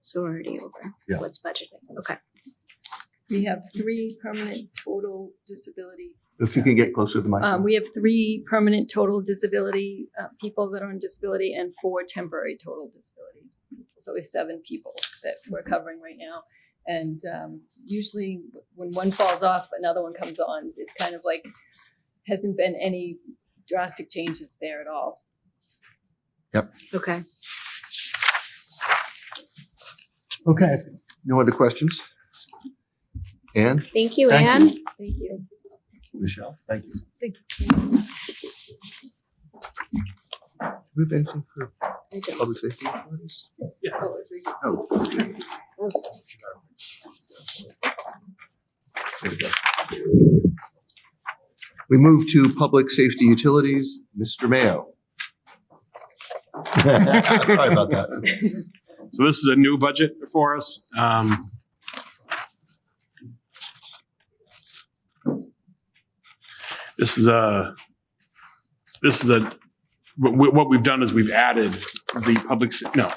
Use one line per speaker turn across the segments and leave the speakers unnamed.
So we're already over
Yeah.
what's budgeted. Okay.
We have three permanent total disability.
If you can get closer to the mic.
Um, we have three permanent total disability, uh, people that are on disability and four temporary total disability. So we have seven people that we're covering right now. And, um, usually when one falls off, another one comes on. It's kind of like, hasn't been any drastic changes there at all.
Okay.
Okay, no other questions? Anne?
Thank you,
Thank
Anne.
Thank you.
Michelle? Thank you. Thank you. Move anything for
I don't-
public safety? employees?
Oh, it's re-
No. There we go. We move to public safety utilities, Mr. Mayo. Sorry about that.
So this is a new budget for us. Um, This is a, this is a, what, we- what we've done is we've added the public, s- no.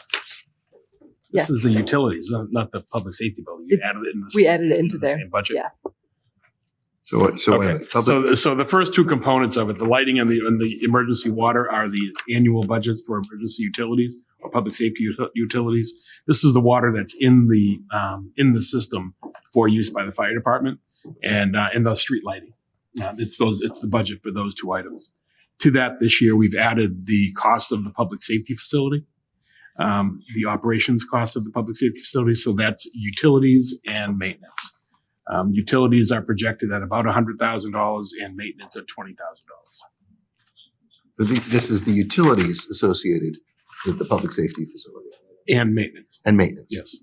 This
Yes.
is the utilities, not, not the public safety building. You
It's-
added it in the.
We
same-
added it into
in the
there.
same Budget.
yeah.
So, what- so, wait a
Okay,
minute.
so,
Public-
the- so the first two components of it, the lighting and the, and the emergency water are the annual budgets for emergency utilities or public safety uti- utilities. This is the water that's in the, um, in the system for use by the fire department and, uh, and the street lighting. Uh, it's those, it's the budget for those two items. To that, this year, we've added the cost of the public safety facility, um, the operations cost of the public safety facility, so that's utilities and maintenance. Um, utilities are projected at about hundred thousand dollars and maintenance at twenty thousand dollars.
but thi- This is the utilities associated with the public safety facility
And maintenance,
and maintenance.
yes.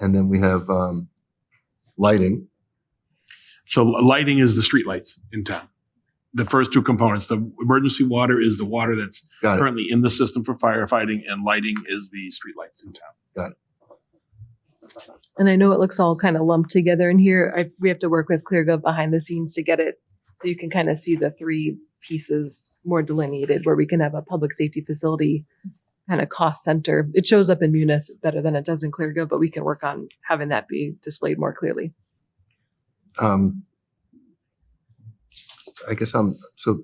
And then we have um, lighting.
So lighting is the streetlights in town. The first two components, the emergency water is the water that's
Got it.
currently in the system for firefighting and lighting is the streetlights in town.
And I know it looks all kind of lumped together in here. I, we have to work with ClearGov behind the scenes to get it. So you can kind of see the three pieces more delineated where we can have a public safety facility kind of cost center. It shows up in Munis better than it does in ClearGov, but we can work on having that be displayed more clearly.
Um, I guess I'm, so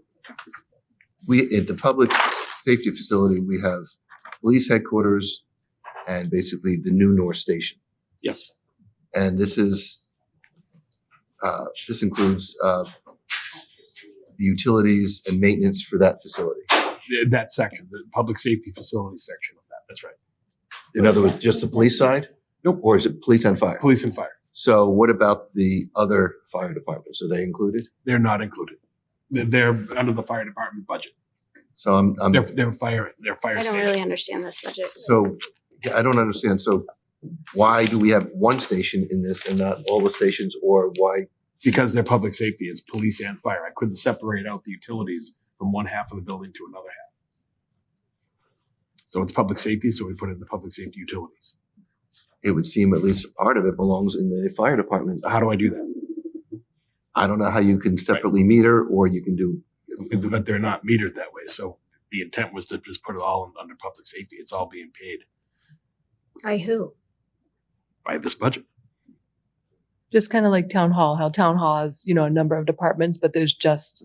we, at the public safety facility, we have police headquarters and basically the new North Station.
Yes,
And this is, uh, this includes uh, the utilities and maintenance for that facility.
th- that section, the public safety facility section of that, that's right.
In other words, just the police side?
Nope.
Or is it police and fire?
Police and fire,
So what about the other fire departments? Are they included?
they're not included. They're, they're under the fire department budget.
So I'm, I'm,
They're, they're fire, they're fire
I don't
station.
really understand this budget.
so yeah, I don't understand. So why do we have one station in this and not all the stations or why?
because their public safety is police and fire. I couldn't separate out the utilities from one half of the building to another half. So it's public safety, so we put in the public safety utilities.
It would seem at least part of it belongs in the fire department.
So how do I do that?
I don't know how you can separately meter or you can do,
But they're not metered that way, so the intent was to just put it all in- under public safety. It's all being paid
By who?
by this budget.
Just kind of like town hall, how town hall has, you know, a number of departments, but there's just,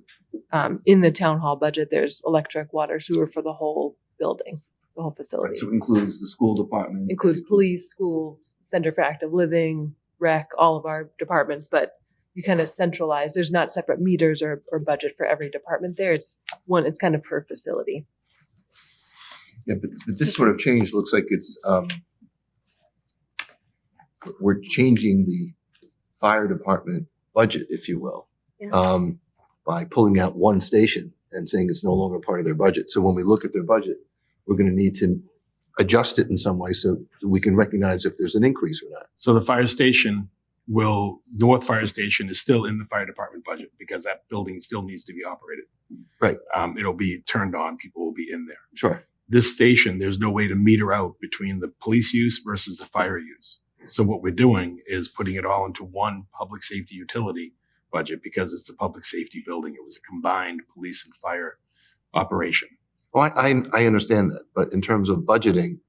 um, in the town hall budget, there's electric, water, sewer for the whole building, the whole facility.
so it includes the school department.
includes police, school, center for active living, rec, all of our departments, but you kind of centralize, there's not separate meters or, or budget for every department there. It's one, it's kind of per facility.
Yeah, but, but this sort of change looks like it's, um, we're changing the fire department budget, if you will,
Yeah.
um, by pulling out one station and saying it's no longer part of their budget. So when we look at their budget, we're gonna need to adjust it in some way so so we can recognize if there's an increase or not.
So the fire station will, North Fire Station is still in the fire department budget because that building still needs to be operated.
Right.
Um, it'll be turned on, people will be in there.
Sure.
this station, there's no way to meter out between the police use versus the fire use. So what we're doing is putting it all into one public safety utility budget because it's a public safety building. It was a combined police and fire operation.
Well, I, I, I understand that, but in terms of budgeting,